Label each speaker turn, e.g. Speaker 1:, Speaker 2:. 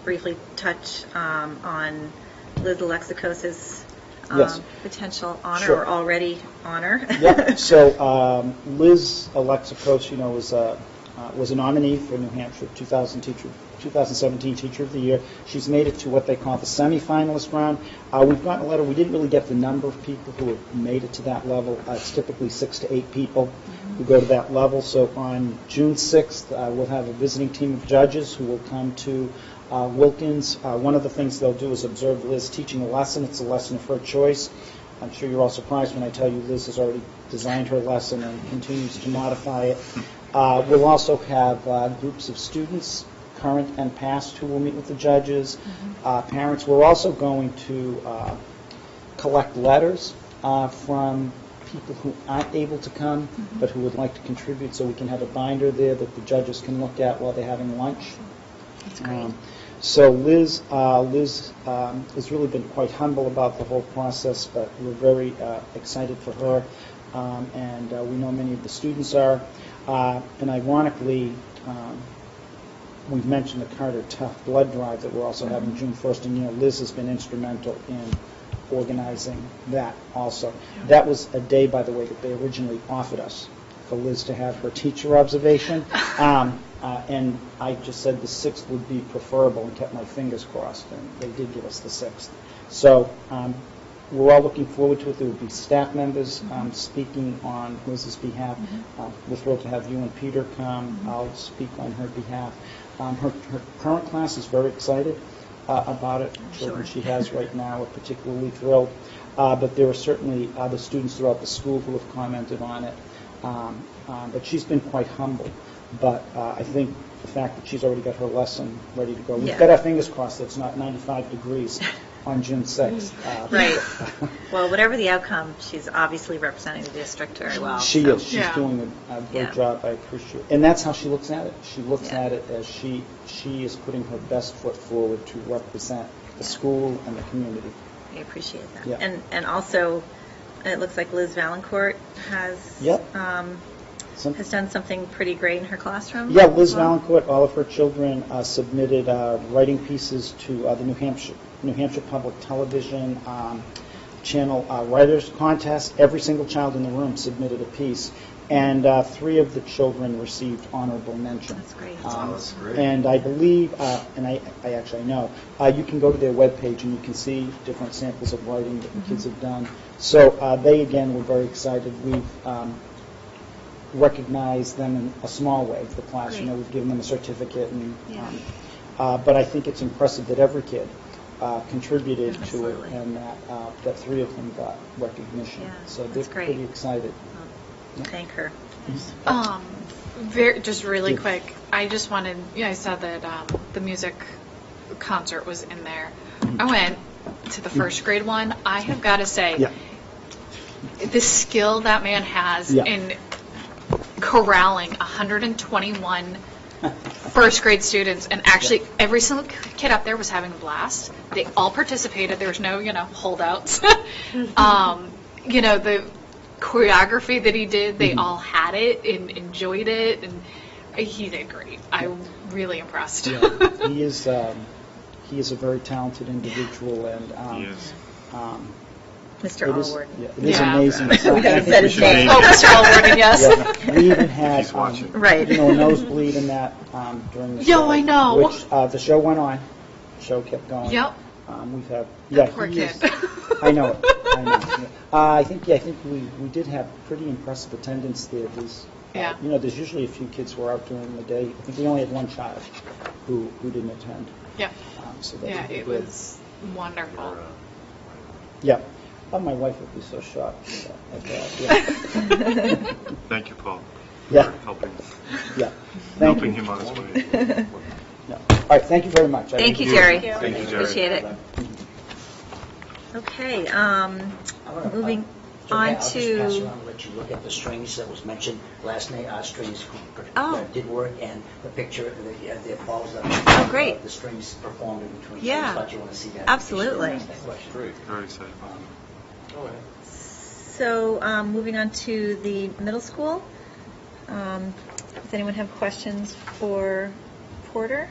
Speaker 1: briefly touch um, on Liz Alexakos's um,
Speaker 2: Yes.
Speaker 1: potential honor
Speaker 2: Sure.
Speaker 1: or already honor?
Speaker 2: Yep, so um, Liz Alexakos, you know, was a, uh, was a nominee for New Hampshire 2000 teacher, 2017 Teacher of the Year. She's made it to what they call the semifinalist round. Uh, We've gotten a letter, we didn't really get the number of people who have made it to that level. Uh, It's typically six to eight people who go to that level. So on June 6th, uh, we'll have a visiting team of judges who will come to uh, Wilkins. Uh, One of the things they'll do is observe Liz teaching a lesson. It's a lesson of her choice. I'm sure you're all surprised when I tell you Liz has already designed her lesson and continues to modify it. Uh, We'll also have uh, groups of students, current and past, who will meet with the judges, uh, parents. We're also going to uh, collect letters uh, from people who aren't able to come, but who would like to contribute, so we can have a binder there that the judges can look at while they're having lunch.
Speaker 1: That's great.
Speaker 2: Um, So Liz, uh, Liz um, has really been quite humble about the whole process, but we're very uh, excited for her, um, and uh, we know many of the students are. Uh, And ironically, um, we've mentioned the Carter Tough Blood Drive that we're also having
Speaker 1: Mm-hmm.
Speaker 2: June 1st, and, you know, Liz has been instrumental in organizing that also. That was a day, by the way, that they originally offered us, for Liz to have her teacher observation. Um, uh, And I just said the 6th would be preferable and kept my fingers crossed, and they did give us the 6th. So um, we're all looking forward to it. There will be staff members um, speaking on Liz's behalf.
Speaker 1: Mm-hmm.
Speaker 2: Uh, We're thrilled to have you and Peter come. I'll speak on her behalf. Um, Her her current class is very excited uh, about it. Children
Speaker 1: sure.
Speaker 2: she has right now are particularly thrilled. Uh, But there are certainly other students throughout the school who have commented on it. Um, um, But she's been quite humble. But uh, I think the fact that she's already got her lesson ready to go. We've
Speaker 1: Yeah.
Speaker 2: got our fingers crossed that it's not 95 degrees on June 6th. Uh,
Speaker 1: Right. Well, whatever the outcome, she's obviously representing the district very well.
Speaker 2: She
Speaker 1: so-
Speaker 2: is, she's
Speaker 3: Yeah.
Speaker 2: doing a a
Speaker 1: Yeah.
Speaker 2: great job, I appreciate, and that's how she looks at it. She looks
Speaker 1: Yeah.
Speaker 2: at it as she, she is putting her best foot forward to represent the
Speaker 1: Yeah.
Speaker 2: school and the community.
Speaker 1: I appreciate that.
Speaker 2: Yeah.
Speaker 1: And, and also, it looks like Liz Valancourt has.
Speaker 2: Yep.
Speaker 1: um,
Speaker 2: Some-
Speaker 1: Has done something pretty great in her classroom.
Speaker 2: Yeah, Liz
Speaker 1: as well.
Speaker 2: Valancourt, all of her children uh, submitted uh, writing pieces to uh, the New Hampshire, New Hampshire Public Television um, Channel uh, Writers Contest. Every single child in the room submitted a piece, and uh, three of the children received honorable mention.
Speaker 1: That's great.
Speaker 2: Um,
Speaker 4: Oh, that's great.
Speaker 2: And I believe, uh, and I I actually know, uh, you can go to their webpage and you can see different samples of writing that the kids
Speaker 1: Mm-hmm.
Speaker 2: have done. So uh, they, again, were very excited. We've um, recognize them in a small way, the class, you know,
Speaker 1: Right.
Speaker 2: we've given them a certificate and,
Speaker 1: Yeah.
Speaker 2: um, uh, but I think it's impressive that every kid uh, contributed to it
Speaker 1: Absolutely.
Speaker 2: and that, uh, that three of them got recognition.
Speaker 1: Yeah,
Speaker 2: So they're
Speaker 1: that's great.
Speaker 2: pretty excited.
Speaker 1: Well, Thank her.
Speaker 3: Um, very, just really
Speaker 2: Yeah.
Speaker 3: quick, I just wanted, yeah, I saw that, um, the music concert was in there.
Speaker 2: Mm-hmm.
Speaker 3: I went to the first grade one. I have got to say,
Speaker 2: Yeah.
Speaker 3: the skill that man has
Speaker 2: Yeah.
Speaker 3: in corralling 121 first grade students, and actually, every single kid up there was having a blast. They all participated. There was no, you know, holdouts.
Speaker 2: Mm-hmm.
Speaker 3: um, you know, the choreography that he did,
Speaker 2: Mm-hmm.
Speaker 3: they all had it and enjoyed it, and he did great. I'm really impressed.
Speaker 2: Yeah. He is, um, he is a very talented individual and. um,
Speaker 4: Yes.
Speaker 2: um,
Speaker 1: Mr.
Speaker 2: it is-
Speaker 1: Allward.
Speaker 2: yeah, It is
Speaker 3: Yeah.
Speaker 2: amazing.
Speaker 4: We
Speaker 2: So I
Speaker 1: gotta
Speaker 2: think
Speaker 1: set
Speaker 2: we
Speaker 1: his
Speaker 2: should-
Speaker 4: name.
Speaker 3: oh, Mr. Allward, yes.
Speaker 2: Yeah, We even had,
Speaker 4: He's
Speaker 2: um,
Speaker 4: watching.
Speaker 1: Right.
Speaker 2: you know, a nosebleed in that um, during the
Speaker 3: Yo,
Speaker 2: show.
Speaker 3: I know.
Speaker 2: Which, uh, the show went on, the show kept going.
Speaker 3: Yep.
Speaker 2: Um, We've had, yeah.
Speaker 3: poor
Speaker 2: he is-
Speaker 3: kid.
Speaker 2: I know, it. I know. it. Uh, I think, yeah, I think we, we did have pretty impressive attendance there. There's, uh,
Speaker 3: Yeah.
Speaker 2: you know, there's usually a few kids who are out during the day. I think we only had one child who, who didn't attend.
Speaker 3: Yeah.
Speaker 2: Um, So that's
Speaker 3: Yeah, it
Speaker 2: good.
Speaker 3: was wonderful.
Speaker 2: Yeah. Oh, my wife would be so shocked at that. Yeah.
Speaker 4: Thank you, Paul.
Speaker 2: Yeah.
Speaker 4: For helping,
Speaker 2: Yeah. Thank
Speaker 4: helping
Speaker 2: you.
Speaker 4: him on his way.
Speaker 2: No. All right, thank you very much. I
Speaker 1: Thank
Speaker 2: really
Speaker 1: you, Jerry.
Speaker 4: Thank you, Jerry.
Speaker 1: Appreciate it. Okay, um, moving
Speaker 5: Okay,
Speaker 1: on
Speaker 5: I'll just pass
Speaker 1: to,
Speaker 5: around and let you look at the strings that was mentioned, last night, our strings
Speaker 1: Oh.
Speaker 5: that did work, and the picture, the, uh, the balls that.
Speaker 1: Oh, great.
Speaker 5: The strings performed in between.
Speaker 1: Yeah.
Speaker 5: I thought you want to see that.
Speaker 1: Absolutely.
Speaker 5: Ask that question.
Speaker 4: Very excited.
Speaker 1: so, um, moving on to the middle school. Um, Does anyone have questions for Porter?